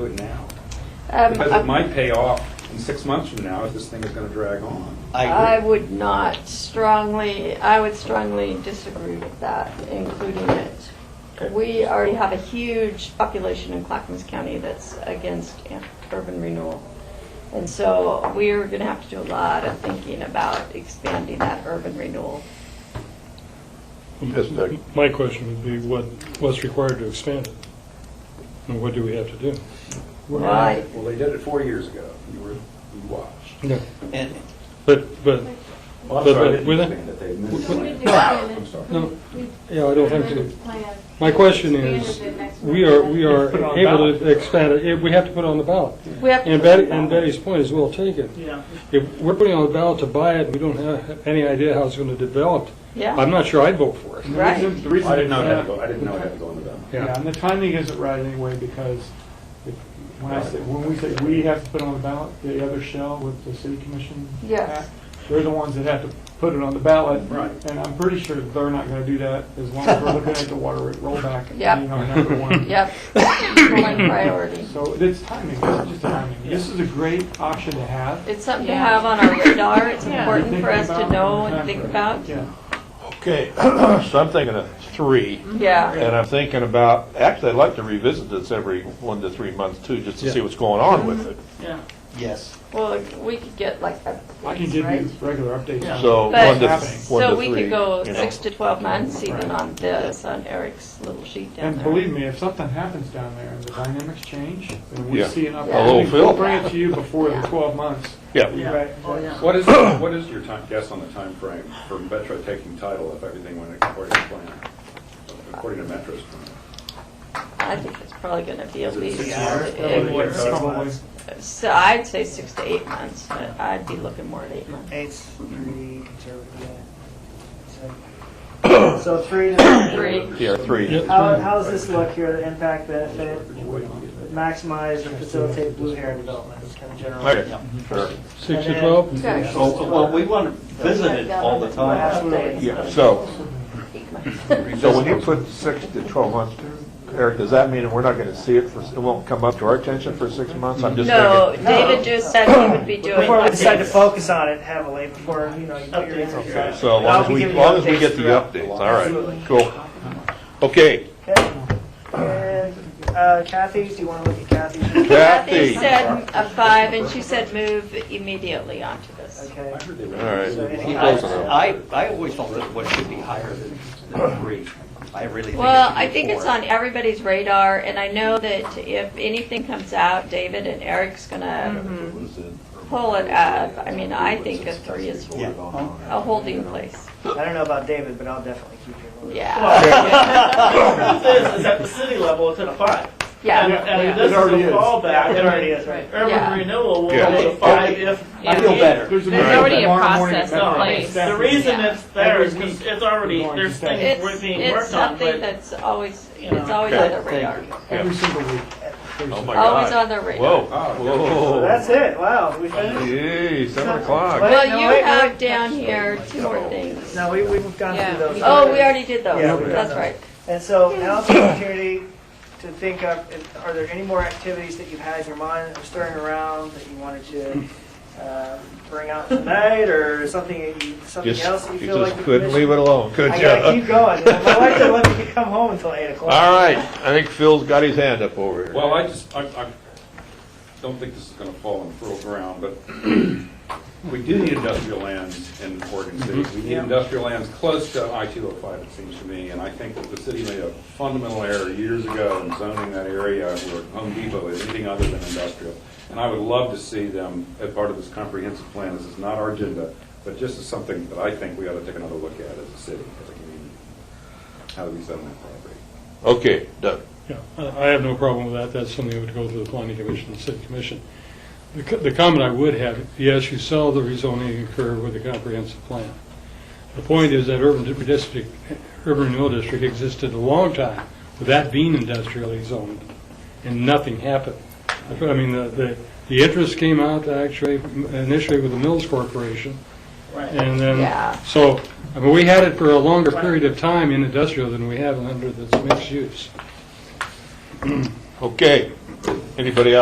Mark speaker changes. Speaker 1: do it now.
Speaker 2: Um,
Speaker 1: Because it might pay off in six months from now if this thing is going to drag on.
Speaker 2: I
Speaker 3: I agree.
Speaker 2: would not strongly, I would strongly disagree with that, including it. We already have a huge population in Clackamas County that's against an- urban renewal. And so we're going to have to do a lot of thinking about expanding that urban renewal.
Speaker 4: Yes, Doug.
Speaker 5: My question would be, what, what's required to expand it? And what do we have to do?
Speaker 2: Right.
Speaker 1: Well, they did it four years ago. You were, you watched.
Speaker 5: No,
Speaker 3: And,
Speaker 5: but, but,
Speaker 1: Well, I'm
Speaker 5: But-
Speaker 1: sorry, I
Speaker 5: but
Speaker 1: didn't
Speaker 5: with it-
Speaker 1: understand that they missed
Speaker 5: with-
Speaker 1: it. I'm sorry.
Speaker 5: no, yeah, I don't have to. My question is, we are, we are
Speaker 4: Put it on
Speaker 5: able
Speaker 4: ballot.
Speaker 5: to expand it, If we have to put it on the ballot.
Speaker 2: We have to.
Speaker 5: And Betty, and Betty's point is well taken.
Speaker 4: Yeah.
Speaker 5: If we're putting on the ballot to buy it, we don't have any idea how it's going to develop. I'm
Speaker 2: Yeah,
Speaker 5: not sure I'd vote for it.
Speaker 2: right.
Speaker 6: The reason
Speaker 1: I didn't know it had to
Speaker 6: it's not-
Speaker 1: go, I didn't know it had to go on the ballot.
Speaker 5: Yeah.
Speaker 6: Yeah, and the timing isn't right anyway, because if- when I say, when we say we have to put it on the ballot, the other shell with the city commission
Speaker 2: Yes.
Speaker 6: act, they're the ones that have to put it on the ballot.
Speaker 1: Right.
Speaker 6: And I'm pretty sure they're not gonna do that as long as we're looking at the water rate rollback and
Speaker 2: Yep.
Speaker 6: being our number one.
Speaker 2: Yep. Controlling priority.
Speaker 6: So it's timing, this is just timing. This is a great option to have.
Speaker 2: It's something to have on our radar. It's important
Speaker 6: Thinking
Speaker 2: for us to
Speaker 6: about
Speaker 2: know
Speaker 6: it.
Speaker 2: and think about.
Speaker 6: Yeah.
Speaker 7: Okay, so I'm thinking of three,
Speaker 2: Yeah.
Speaker 7: and I'm thinking about, actually, I'd like to revisit this every one to three months too, just to see
Speaker 5: Yeah.
Speaker 7: what's going on with it.
Speaker 3: yes,
Speaker 2: Well, we could get like updates,
Speaker 6: I
Speaker 2: right?
Speaker 6: can give you regular updates.
Speaker 7: So
Speaker 2: But,
Speaker 7: one to,
Speaker 6: But-
Speaker 7: one
Speaker 2: so
Speaker 7: to
Speaker 2: we
Speaker 7: three,
Speaker 2: could go
Speaker 7: you know.
Speaker 2: six to 12 months even on this, on Eric's little sheet down
Speaker 6: And
Speaker 2: there.
Speaker 6: believe me, if something happens down there and the dynamics change, and we
Speaker 7: Yeah.
Speaker 6: see an
Speaker 7: Hello,
Speaker 6: opportunity,
Speaker 7: Phil.
Speaker 6: we'll bring it to you before the 12 months.
Speaker 7: Yeah,
Speaker 6: Right.
Speaker 8: Oh,
Speaker 1: What is, what is your time, guess on the time frame for Metro taking title if everything went according to plan? According to Metro's plan?
Speaker 2: I think it's probably going to be at
Speaker 1: Is it
Speaker 2: least,
Speaker 1: six
Speaker 2: it-
Speaker 1: Probably,
Speaker 2: it-
Speaker 1: yeah.
Speaker 6: It's probably-
Speaker 2: so I'd say six to eight months, but I'd be looking more at eight months.
Speaker 9: Eight's pretty conservative, yeah. So- So three to,
Speaker 2: Three.
Speaker 7: yeah, three.
Speaker 9: how, how's this look here, the impact benefit, maximize and facilitate blue hair development, is kind of general.
Speaker 7: Okay, sure.
Speaker 5: Six to 12?
Speaker 2: Okay.
Speaker 10: Well, well, we want to visit it all the
Speaker 9: Oh,
Speaker 10: time.
Speaker 2: Updates.
Speaker 7: Yeah, so,
Speaker 2: Eight months.
Speaker 7: so when you put six to 12 months, Eric, does that mean we're not going to see it for, it won't come up to our attention for six months? I'm just
Speaker 2: No,
Speaker 7: thinking,
Speaker 2: David just said he would be doing
Speaker 9: Before we decide to
Speaker 2: updates.
Speaker 9: focus on it heavily, before, you know, you put your energy on it.
Speaker 7: so as long as we, as long as we get the updates, all right, cool. Okay,
Speaker 9: Okay. And, uh, Kathy's, do you want to look at Kathy's?
Speaker 2: Kathy
Speaker 7: Kathy,
Speaker 2: said a five, and she said move immediately onto this.
Speaker 9: Okay.
Speaker 1: I heard they
Speaker 7: all
Speaker 1: were.
Speaker 7: right.
Speaker 10: I, I I always thought that what should be higher than than three. I really think it should be four.
Speaker 2: Well, I think it's on everybody's radar, and I know that if anything comes out, David and Eric's
Speaker 7: Mm-hmm.
Speaker 2: gonna Mm-hmm. pull it up. I mean, I think a three is
Speaker 10: Yeah.
Speaker 2: a holding place.
Speaker 9: I don't know about David, but I'll definitely keep you in the loop.
Speaker 2: Yeah.
Speaker 8: truth is, is at the city level, it's at a five. And, and
Speaker 2: Yeah.
Speaker 8: this is a
Speaker 6: already is.
Speaker 8: fallback.
Speaker 9: It already
Speaker 8: and
Speaker 9: is, right?
Speaker 2: Yeah.
Speaker 8: Urban renewal will
Speaker 7: Yeah.
Speaker 8: go to five if.
Speaker 10: I feel better.
Speaker 6: There's
Speaker 8: There's already
Speaker 6: already a
Speaker 8: a
Speaker 6: process
Speaker 8: No, the reason
Speaker 2: Yeah.
Speaker 8: it's there is
Speaker 6: Every
Speaker 8: because
Speaker 6: week,
Speaker 8: it's already,
Speaker 6: we're going
Speaker 8: there's
Speaker 6: to stay.
Speaker 8: things we're
Speaker 2: It's,
Speaker 8: being
Speaker 2: it's
Speaker 8: worked on,
Speaker 2: something
Speaker 8: but
Speaker 2: that's always,
Speaker 8: you know.
Speaker 2: it's always on their radar.
Speaker 6: Every single week. Every
Speaker 7: Oh,
Speaker 6: single-
Speaker 7: my
Speaker 2: Always
Speaker 7: God.
Speaker 2: on their radar.
Speaker 7: Whoa,
Speaker 1: "Oh,
Speaker 9: So
Speaker 7: whoa.
Speaker 9: That's it, wow, we finished?
Speaker 7: Yay, seven o'clock.
Speaker 2: Well,
Speaker 9: no,
Speaker 2: you
Speaker 9: wait,
Speaker 2: have
Speaker 9: wait.
Speaker 2: down here two more things.
Speaker 9: No, we, we've gone through those.
Speaker 2: Oh, we already did those.
Speaker 9: Yeah, we did
Speaker 2: That's
Speaker 9: those.
Speaker 2: right.
Speaker 9: And so now's the opportunity to think up, are there any more activities that you've had in your mind that were stirring around that you wanted to uh, bring out tonight, or something, that you- something
Speaker 7: Just,
Speaker 9: else that you
Speaker 7: you
Speaker 9: feel like?
Speaker 7: just
Speaker 9: the
Speaker 7: couldn't leave
Speaker 9: commission-
Speaker 7: it alone, could
Speaker 9: I
Speaker 7: you?
Speaker 9: gotta keep going. My wife doesn't let me come home until eight o'clock.
Speaker 7: All right, I think Phil's got his hand up over here.
Speaker 1: Well, I just, I, I don't think this is gonna fall on fertile ground, but we do need industrial lands in Oregon City. We need industrial lands close to I-205, it seems to me, and I think that the city made a fundamental error years ago in zoning that area where Home Depot is anything other than industrial. And I would love to see them, as part of this comprehensive plan, this is not our agenda, but just as something that I think we ought to take another look at as a city, as a community. How do we zone that property?
Speaker 7: Okay, Doug.
Speaker 5: Yeah, I I have no problem with that. That's something that would go through the planning commission and city commission. The co- The comment I would have, yes, you saw the rezoning occur with the comprehensive plan. The point is that urban di- district, urban renewal district existed a long time with that being industrially zoned, and nothing happened. That's what- I mean, the, the the interest came out actually initially with the Mills Corporation,
Speaker 2: Yeah.
Speaker 5: and then, so, I mean, we had it for a longer period of time in industrial than we have under this mixed use.
Speaker 7: Okay,
Speaker 1: Anybody else?